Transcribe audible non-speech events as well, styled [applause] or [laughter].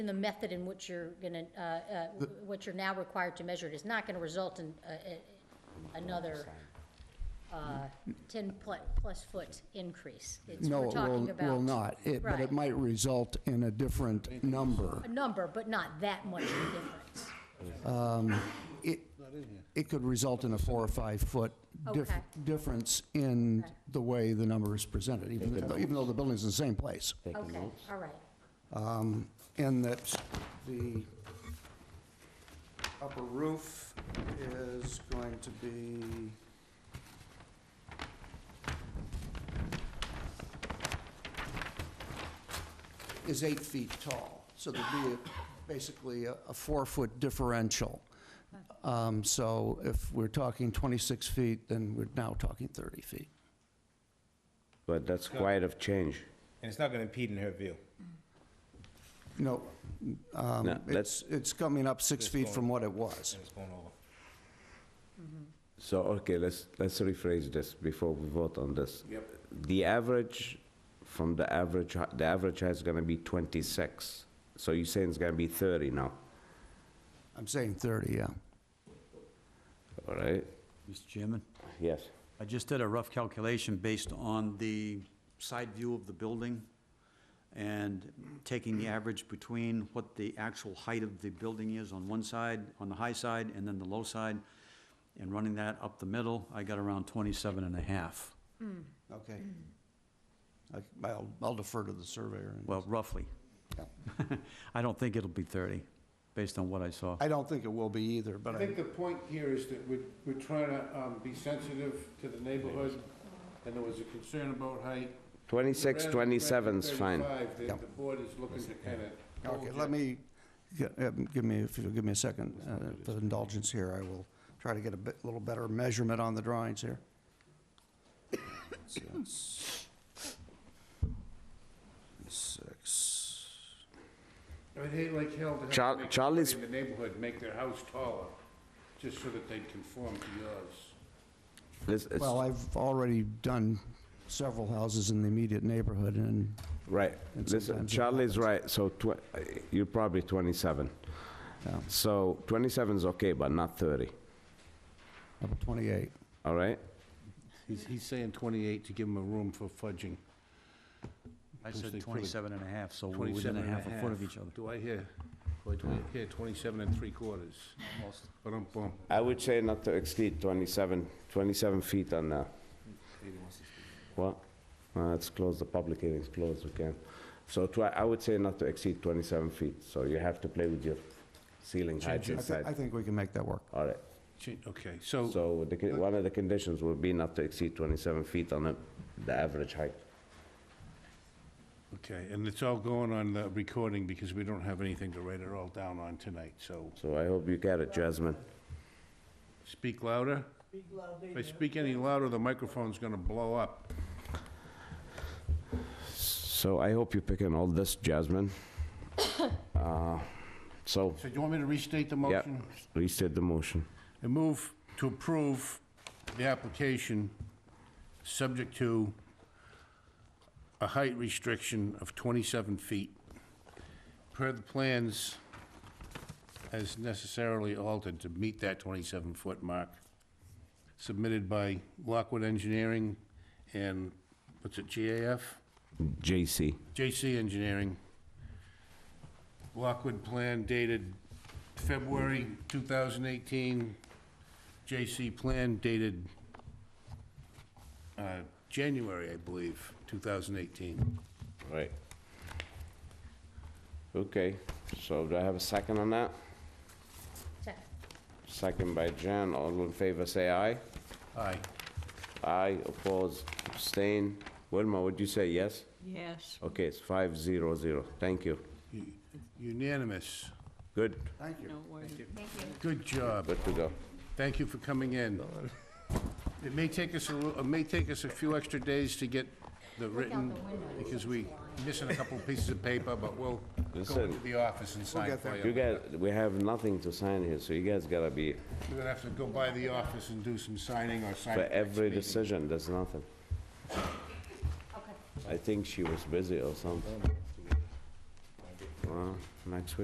in the method in which you're gonna, uh, uh, what you're now required to measure it is not gonna result in uh, uh, another uh, 10 pl- plus foot increase. It's- No, we're it talking will, will about not. It- But Right. it might result in a different number. A number, but not that much of a difference. It, it could result in a four or five-foot dif- Okay. difference in Okay. the way the number is presented, even though, even though the building's in the same place. Okay, all right. And that the upper roof is going to be... is eight feet tall, so there'd be a- basically a a four-foot differential. Um, So if we're talking 26 feet, then we're now talking 30 feet. But that's quite a change. And it's not gonna impede in her view. No, um, No, it's let's- it's coming up six feet from what it was. And it's going over. So, okay, let's, let's rephrase this before we vote on this. Yep. The average, from the average, hei- the average height is gonna be 26. So you're saying it's gonna be 30 now, I'm saying 30, yeah. all right? Mr. Chairman, Yes. I just did a rough calculation based on the side view of the building and taking the average between what the actual height of the building is on one side, on the high side, and then the low side, and running that up the middle, I got around 27 and a half, Okay. I- I'll I'll defer to the surveyor. and- well, roughly. Yeah. [laughs] I don't think it'll be 30, based on what I saw. I don't think it will be either, but I I, think the point here is that we're, we're trying to um, be sensitive to the neighborhood, and there was a concern about height. 26, Rather than 27's fine. 35, The, the board is looking to kind of. okay, let me, yeah, um, give me, if you'll give me a second, uh, for indulgence here, I will try to get a bit, little better measurement on the drawings here. Six. Six. I'd hate like hell to have Char- to make Charlie's- somebody in the neighborhood make their house taller, just so that they conform to yours. This is- Well, I've already done several houses in the immediate neighborhood, and Right, And listen, sometimes it Charlie's right, so tw- uh, you're probably 27. Yeah. So 27 is okay, but not 30, about 28. all right? He's, he's saying 28 to give him a room for fudging. I Which they said could. 27 and a half, so we're within 27 a and a half a foot of each other. Do I hear, or do I hear 27 and 3 quarters? Almost. Ba-dum-bum. I would say not to exceed 27, 27 feet on the... What? Uh, It's closed, the public hearing's closed, we can. So twi- I would say not to exceed 27 feet, so you have to play with your ceiling height I thi- I inside. think Oh. we can make that work. All right, Gee, Okay, so, so the con- one of the conditions would be not to exceed 27 feet on the- the average height. okay, and it's all going on the recording because we don't have anything to write it all down on tonight, so So I hope you get it, Jasmine. speak louder. If I speak any louder, the microphone's gonna blow up. So I hope you're picking all this, Jasmine. [coughs] Uh, So, So do you want me to restate the yeah, motion? restate the motion. I move to approve the application, subject to a height restriction of 27 feet per the plans as necessarily altered to meet that 27-foot mark submitted by Lockwood Engineering and, what's it, GAF? JC. JC Engineering, Lockwood Plan dated February 2018, JC Plan dated uh, January, I believe, 2018. Right. Okay, so do I have a second on that? So, Second by Jan, all in favor, say aye. Aye. Aye, opposed, abstain. Wilma, would you say yes? Yes. Okay, it's five zero zero, thank you. U- Unanimous. Good, No worries. Good job. good to go. Thank you for coming in. It may take us, a little- it may take us a few extra days to get the written, because we missing a couple pieces of paper, but we'll go Listen. into the office and sign for you. You guys, we have nothing to sign here, so you guys gotta be, We're gonna have to go by the office and do some signing or sign. for at the next every meeting. decision, there's nothing. Okay. I think she was busy or something. Well, next week.